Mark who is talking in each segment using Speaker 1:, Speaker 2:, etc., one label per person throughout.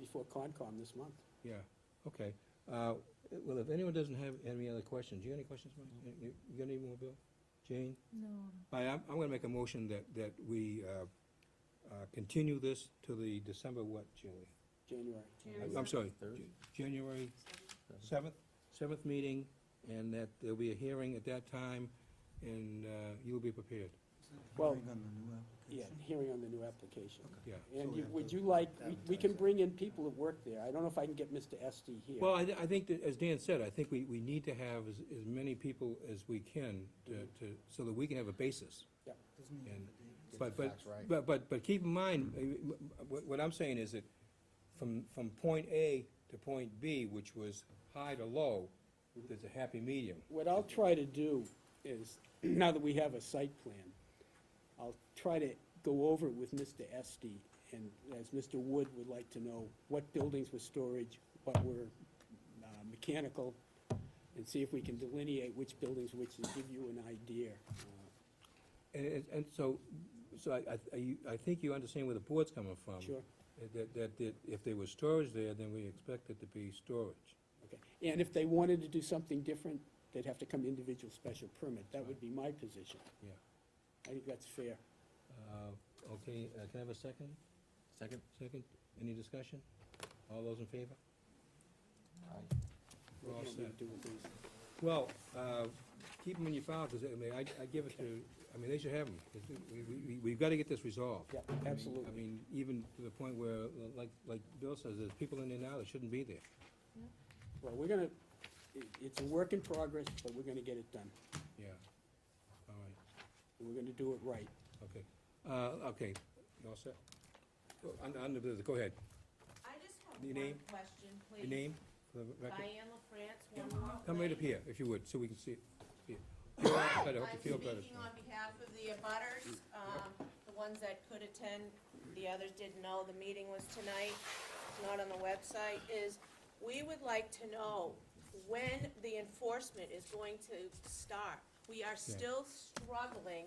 Speaker 1: before Concom this month.
Speaker 2: Yeah, okay. Uh, Well, if anyone doesn't have any other questions, you got any questions, Mike? You- You you got any more, Bill? Jane?
Speaker 3: No.
Speaker 2: I, I'm, I'm gonna make a motion that, that we, uh, uh, continue this to the December what, Julie?
Speaker 1: January.
Speaker 2: I'm- I'm sorry, J- January seventh, seventh meeting, and that there'll be a hearing at that time, and, uh, you'll be prepared,
Speaker 1: Well-
Speaker 4: Hearing on the new
Speaker 1: Yeah,
Speaker 4: application.
Speaker 1: hearing on the new application.
Speaker 2: yeah.
Speaker 1: And
Speaker 4: So we
Speaker 1: you-
Speaker 4: have
Speaker 1: would
Speaker 4: to
Speaker 1: you like, we- we can
Speaker 4: advertise it.
Speaker 1: bring in people that work there. I don't know if I can get Mr. Estee here.
Speaker 2: Well, I, I think that, as Dan said, I think we, we need to have as, as many people as we can to, to, so that we can have a basis.
Speaker 4: Doesn't he have
Speaker 2: And-
Speaker 4: a date?
Speaker 2: But, but, but, but, but keep in mind, uh, m- m- what, what I'm saying is that from, from point A to point B, which was high to low, there's a happy medium.
Speaker 1: What I'll try to do is, now that we have a site plan, I'll try to go over it with Mr. Estee, and as Mr. Wood would like to know, what buildings were storage, what were uh, mechanical, and see if we can delineate which buildings, which will give you an idea. uh,
Speaker 2: And, and- and so, so I, I- I, I think you understand where the board's coming
Speaker 4: Um,
Speaker 2: from.
Speaker 1: Sure,
Speaker 2: That, that, that if there was storage there, then we expect it to be storage.
Speaker 1: okay. And if they wanted to do something different, they'd have to come individual special permit. That would be my position.
Speaker 2: Yeah.
Speaker 1: I think that's fair.
Speaker 2: Uh, okay, uh, can I have a second?
Speaker 5: Second?
Speaker 2: Second, any discussion? All those in favor? We're all
Speaker 1: What do you
Speaker 2: set.
Speaker 1: do with these?
Speaker 2: Well, uh, keep them in your file, because I mean, I, I give it to, I mean, they should have them. We, we, we've gotta get this resolved.
Speaker 1: Yeah,
Speaker 2: I mean- I
Speaker 1: absolutely.
Speaker 2: mean, even to the point where, like, like Bill says, there's people in there now that shouldn't be there.
Speaker 1: Well, we're gonna, it, it's a work in progress, but we're gonna get it done.
Speaker 2: Yeah. All right.
Speaker 1: And we're gonna do it right.
Speaker 2: Okay, uh, okay, you all set? Go- un- Under, the- go ahead,
Speaker 6: I just have
Speaker 2: Your
Speaker 6: one
Speaker 2: name?
Speaker 6: question, please.
Speaker 2: your name for the record?
Speaker 6: Diane LaFrance, one more.
Speaker 2: Come right up here, if you would, so we can see it. see it. Feel better, I hope you feel
Speaker 6: I'm
Speaker 2: better.
Speaker 6: speaking on behalf of the abutters, um, the ones that could attend, the others didn't know, the meeting was tonight, it's not on the website, is we would like to know when the enforcement is going to start. We are still struggling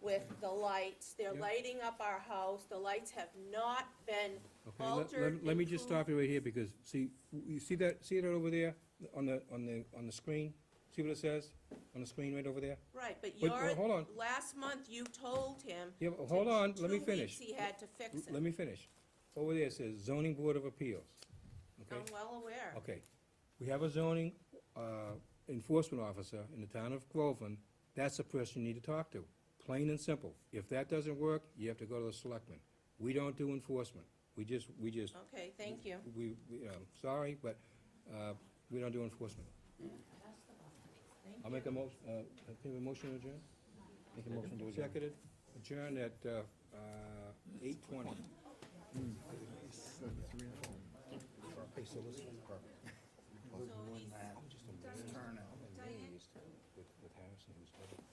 Speaker 6: with the lights, they're
Speaker 2: Yeah.
Speaker 6: lighting up our house, the lights have not been
Speaker 2: Okay, let- let,
Speaker 6: Altered,
Speaker 2: me- let me just
Speaker 6: improved.
Speaker 2: stop you right here, because, see, you see that, see that over there, on the, on the, on the screen? See what it says, on the screen right over there?
Speaker 6: Right, but
Speaker 2: Wait,
Speaker 6: your,
Speaker 2: well, hold on.
Speaker 6: last month you told him.
Speaker 2: Yeah, but
Speaker 6: to-
Speaker 2: hold on, let me
Speaker 6: two
Speaker 2: finish.
Speaker 6: weeks he had to fix
Speaker 2: Let
Speaker 6: it.
Speaker 2: me finish. Over there it says zoning board of appeals, okay?
Speaker 6: I'm well aware.
Speaker 2: Okay, we have a zoning uh, enforcement officer in the town of Groveland, that's the person you need to talk to, plain and simple. If that doesn't work, you have to go to the selectmen. We don't do enforcement, we just, we just,
Speaker 6: Okay, thank you.
Speaker 2: we, we, um, sorry, but uh, we don't do enforcement. I'll make a mo, uh, can we motion to adjourn?
Speaker 5: Make a motion to adjourn.
Speaker 2: Seconded, adjourn at uh, eight twenty.
Speaker 6: So he's-
Speaker 4: Turnout.
Speaker 2: With Harrison, who's other